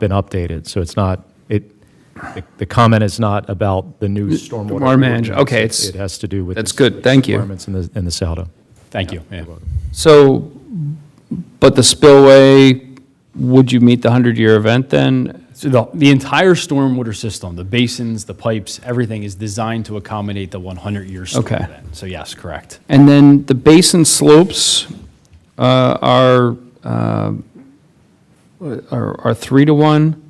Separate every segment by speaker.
Speaker 1: been updated, so it's not, it, the- the comment is not about the new stormwater.
Speaker 2: water management,
Speaker 1: ordinance.
Speaker 2: okay,
Speaker 1: It-
Speaker 2: it's-
Speaker 1: It has to do with.
Speaker 2: that's
Speaker 1: the
Speaker 2: good, thank you.
Speaker 1: Requirements in the, in the SADO.
Speaker 3: Thank you. Yeah.
Speaker 2: So, but the spillway, would you meet the 100-year event then?
Speaker 3: So the, the entire stormwater system, the basins, the pipes, everything is designed to accommodate the 100-year storm
Speaker 2: Okay.
Speaker 3: event. So yes, correct.
Speaker 2: And then the basin slopes uh, are, uh, are are three to one,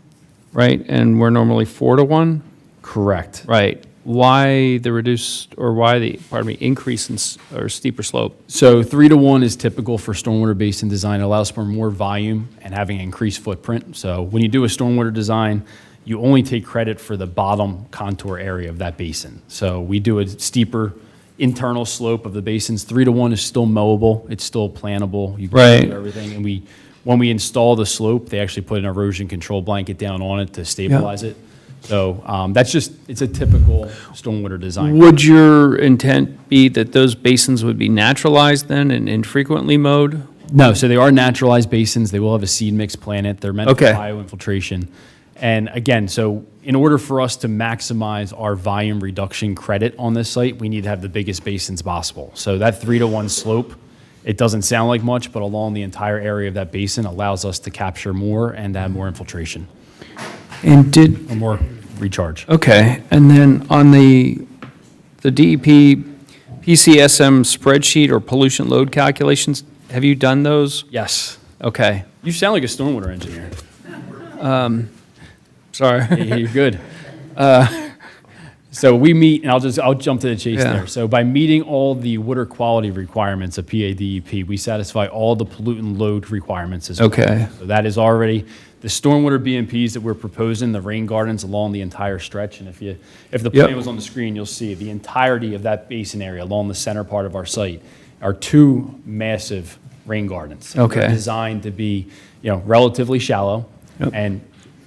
Speaker 2: right? And we're normally four to one,
Speaker 3: Correct.
Speaker 2: right? Why the reduced, or why the, pardon me, increase in, s- or steeper slope?
Speaker 3: So three to one is typical for stormwater basin design. It allows for more volume and having increased footprint. So when you do a stormwater design, you only take credit for the bottom contour area of that basin. So we do a steeper internal slope of the basins. Three to one is still mowable. It's still plantable. You can
Speaker 2: Right.
Speaker 3: do Everything. And we, when we install the slope, they actually put an erosion control blanket down on it to stabilize it. So um, that's just, it's a typical stormwater design.
Speaker 2: Would your intent be that those basins would be naturalized then and infrequently mowed?
Speaker 3: No, so they are naturalized basins. They will have a seed mix planet. They're meant
Speaker 2: Okay.
Speaker 3: for bioinfiltration. And again, so in order for us to maximize our volume reduction credit on this site, we need to have the biggest basins possible. So that three to one slope, it doesn't sound like much, but along the entire area of that basin allows us to capture more and have more infiltration
Speaker 2: And did,
Speaker 3: or more recharge.
Speaker 2: Okay, and then on the, the E DEP PCSM spreadsheet or pollution load calculations, have you done those?
Speaker 3: Yes.
Speaker 2: Okay,
Speaker 3: You sound like a stormwater engineer.
Speaker 2: sorry.
Speaker 3: Yeah, You're good. Uh, So we meet, and I'll just, I'll jump to the chase
Speaker 2: Yeah.
Speaker 3: there. So by meeting all the water quality requirements of PADEP, E we satisfy all the pollutant load requirements as well.
Speaker 2: Okay.
Speaker 3: So that is already, the stormwater BMPs that we're proposing, the rain gardens along the entire stretch, and if you, if the
Speaker 2: Yep.
Speaker 3: plan was on the screen, you'll see the entirety of that basin area along the center part of our site are two massive rain gardens. And they're
Speaker 2: Okay.
Speaker 3: Designed to be, you know, relatively shallow and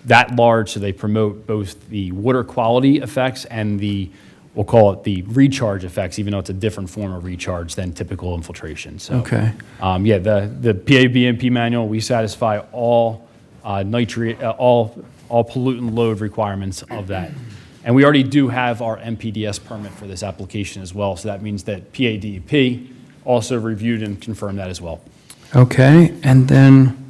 Speaker 3: that large, so they promote both the water quality effects and the, we'll call it the recharge effects, even though it's a different form of recharge than typical infiltration, so.
Speaker 2: Okay.
Speaker 3: Um, yeah, the, the PABMP manual, we satisfy all uh, nitrate, uh, all, all pollutant load requirements of that. And we already do have our MPDS permit for this application as well, so that means that PADEP also reviewed and confirmed that as well.
Speaker 2: Okay, and then,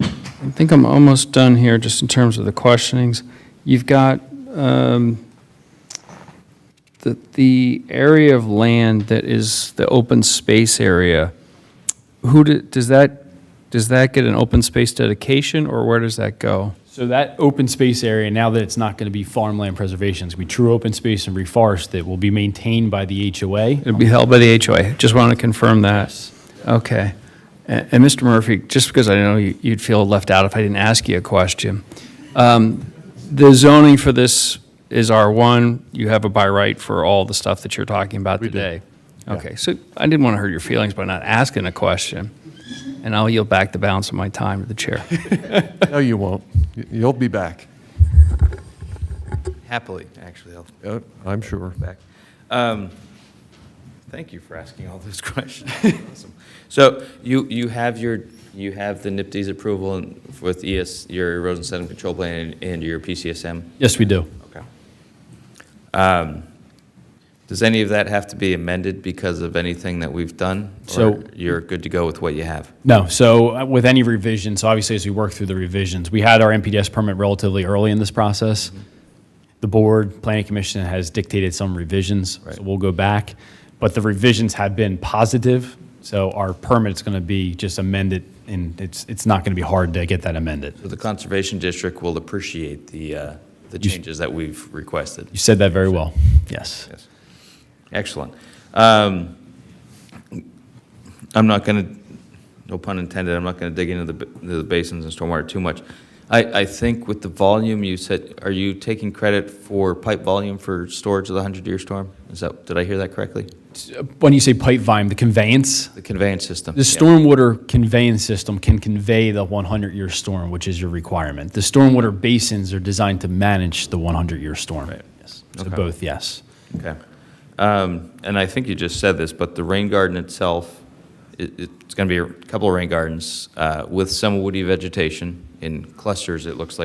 Speaker 2: I think I'm almost done here, just in terms of the questionings. You've got um, the, the area of land that is the open space area. Who, do- does that, does that get an open space dedication, or where does that go?
Speaker 3: So that open space area, now that it's not going to be farmland preservation, it's going to be true open space and reforest that will be maintained by the HOA.
Speaker 2: It'll be held by the HOA. Just want to confirm that. Okay. And and Mr. Murphy, just because I know you- you'd feel left out if I didn't ask you a question. um, The zoning for this is R1. You have a by right for all the stuff that you're talking about today. Okay, so I didn't want to hurt your feelings by not asking a question. And I'll yield back the balance of my time to the chair.
Speaker 4: No, you won't. Y- You'll be back,
Speaker 5: Happily, actually, I'll oh,
Speaker 4: uh, I'm sure.
Speaker 5: back. Um, Thank you for asking all those questions. Awesome. So you, you have your, you have the NIPD's approval and with ES, your erosion sediment control plan and- and your PCSM?
Speaker 3: Yes, we do.
Speaker 5: Okay. Um, Does any of that have to be amended because of anything that we've done?
Speaker 3: So-
Speaker 5: Or you're good to go with what you have?
Speaker 3: No, so uh, with any revisions, so obviously as we work through the revisions, we had our MPDS permit relatively early in this process. The board, planning commission has dictated some revisions, so we'll go back. But the revisions have been positive, so our permit's going to be just amended, and it's, it's not going to be hard to get that amended.
Speaker 5: So The Conservation District will appreciate the, uh, the changes that we've requested.
Speaker 3: You said that very well. Yes.
Speaker 5: Yes. Excellent. Um, I'm not going to, no pun intended, I'm not going to dig into the b- the basins and stormwater too much. I, I think with the volume you said, are you taking credit for pipe volume for storage of the 100-year storm? Is that, did I hear that correctly?
Speaker 3: When you say pipe volume, the conveyance,
Speaker 5: The conveyance system?
Speaker 3: The stormwater conveyance system can convey the 100-year storm, which is your requirement. The stormwater basins are designed to manage the 100-year storm. Yes. So
Speaker 5: Okay.
Speaker 3: both, yes.
Speaker 5: Okay. Um, And I think you just said this, but the rain garden itself It, it's going to be a couple of rain gardens uh, with some woody vegetation in clusters, it looks like.